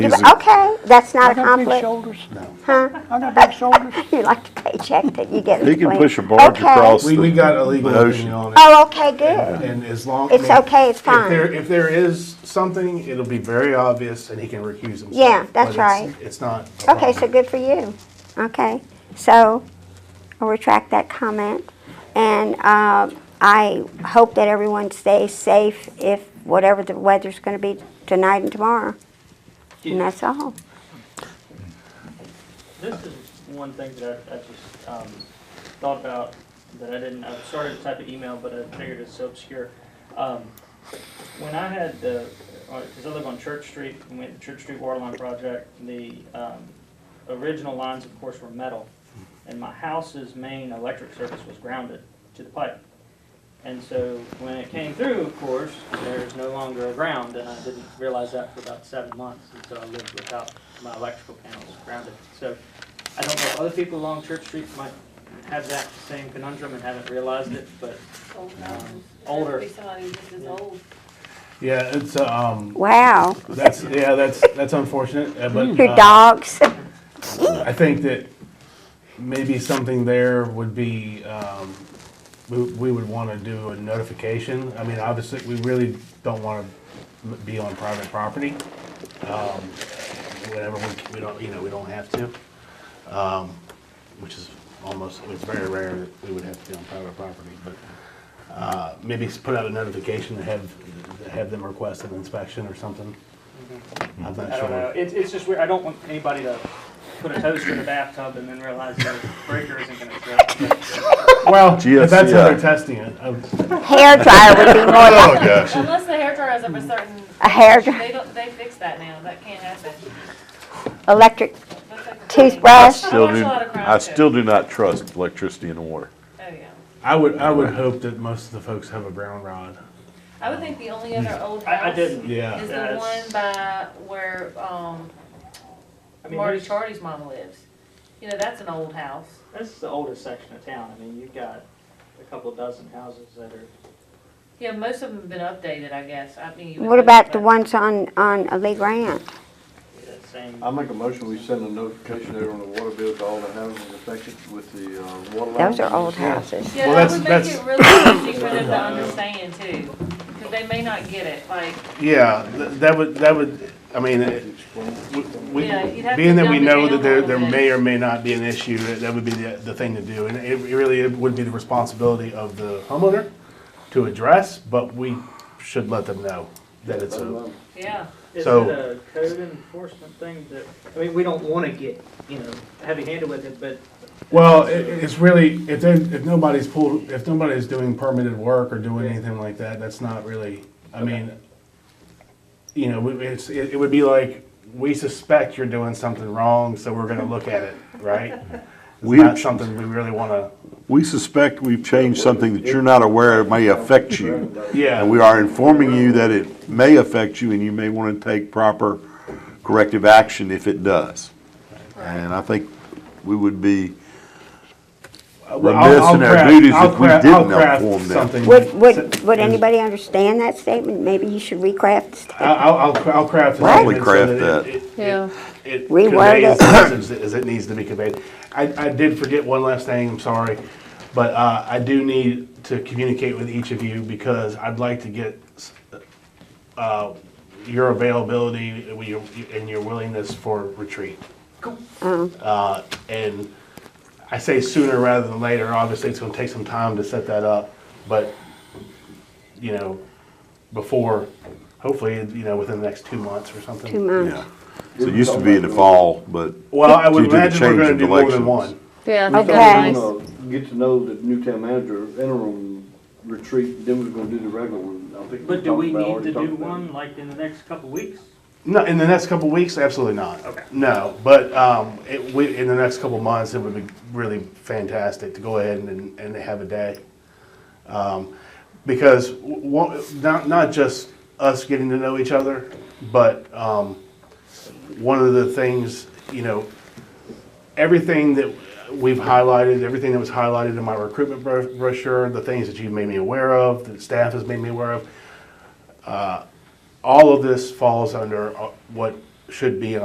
He's a- Okay, that's not I a got big conflict. shoulders now. I got big shoulders. You like the paycheck that you get. in He can between. push a barge Okay. across We, we got a legal The ocean. opinion on it, Oh, okay, good. and as long. I It's mean, okay, it's If there, fine. if there is something, it'll be very obvious, and he can recuse himself. Yeah, that's but it's- right. It's not. a Okay, so problem. good for you. Okay, so I'll retract that comment. And uh, I hope that everyone stays safe if whatever the weather's going to be tonight and tomorrow. And that's all. This is one thing that I, I just, um, thought about that I didn't, I started to type an email, but I figured it's so obscure. Um, when I had the, because I live on Church Street, and we had the Church Street water line project, the, um, original lines, of course, were metal. And my house's main electric service was grounded to the pipe. And so when it came through, of course, there's no longer a ground, and I didn't realize that for about seven months, and so I lived without my electrical panels grounded. So I don't know if other people along Church Street might have that same conundrum and haven't realized it, but Old houses. Older. Be somebody just as old. Yeah, it's, um, Wow, that's, yeah, that's, that's unfortunate, uh, but. your uh, dogs. I think that maybe something there would be, um, we, we would wanna do a notification. I mean, obviously, we really don't wanna m- be on private property. Um, whenever we, we don't, you know, we don't have to. Um, which is almost, it's very rare that we would have to be on private property, but, uh, maybe s- put out a notification to have, have them request an inspection or something. I'm not Mm-hmm. I don't know. sure. It's, it's just weird. I don't want anybody to put a toaster in a bathtub and then realize the breaker isn't gonna work. Well, if that's how GSCI. they're testing uh, it. I'm- Hair dryer would be more Oh, like gosh. Unless the hair dryer is of a certain. a hair, dry- They don't, they fix that now, that can't happen. electric That's like a thing. toothbrush. Still watch a do, lot of crime I shows. still do not trust electricity and water. Oh, yeah. I would I would hope that most of the folks have a brown rod. I would think the only other old house. I, I didn't. Yeah. Is the Yeah, it's- one by where, um, I mean, Marty there's- Charlie's mama lives. You know, that's an old house. This is the oldest section of town. I mean, you've got a couple dozen houses that are. Yeah, most of them have been updated, I guess. I mean. you would What think, about the but- ones on, on Lee Grant? that uh, same. I make a motion, we send a notification out on the water bill to all the houses affected with the uh, water lines. Those are old houses. Yeah, Well, that that's- would make that's- it really easy for them to understand too, because they may not get it, like, Yeah, th- that would that would. I mean, it, we, we- Yeah, you'd have being to that we dumb it know down that a there little there bit. may or may not be an issue, that that would be the, the thing to do, and it really would be the responsibility of the homeowner to address. But we should let them know that it's a. yeah. Is it So- a code enforcement thing that, I mean, we don't wanna get, you know, heavy-handed with it, but Well, it, it's really if they, if nobody's pulled if nobody's doing permitted work or doing anything like that, that's not really. I mean, you know, we- it's it, it would be like we suspect you're doing something wrong, so we're going to look at it, right? It's We- not something we really want to. We suspect we've changed something that you're not aware of may affect you. Yeah, And we are informing you that it may affect you and you may want to take proper corrective action if it does. And I think we would be, remiss in our duties if we didn't inform them. Would, would, would anybody understand that statement? Maybe you should recraft the statement. I'll, I'll- I'll, cra- I'll craft a Probably statement craft so that. that. it- it- Yeah. It Reword conveys it. the message that- as it needs to be conveyed. I, I did forget one last thing, I'm sorry, but uh, I do need to communicate with each of you because I'd like to get s- uh, your availability and your- and your willingness for retreat. Uh, And I say sooner rather than later, obviously it's gonna take some time to set that up, but, you know, before, hopefully, you know, within the next two months or something. Two months. yeah. So it used to be in the fall, but Well, I would Due to the imagine we're change gonna in do more than elections. one. Yeah, I We think Okay. that's thought we nice. were gonna get to know the new town manager interim retreat, then we we're gonna do the regular one. I think But do talked we about- need already to talked do about it. one like in the next couple weeks? No, in the next couple of weeks, absolutely not. Okay. No, but um, it, we, in the next couple of months, it would be really fantastic to go ahead and, and have a day. Um, because w- one- not, not just us getting to know each other, but um, one of the things, you know, everything that we've highlighted, everything that was highlighted in my recruitment bro- brochure, the things that you've made me aware of, that staff has made me aware of, all of this falls under uh, what should be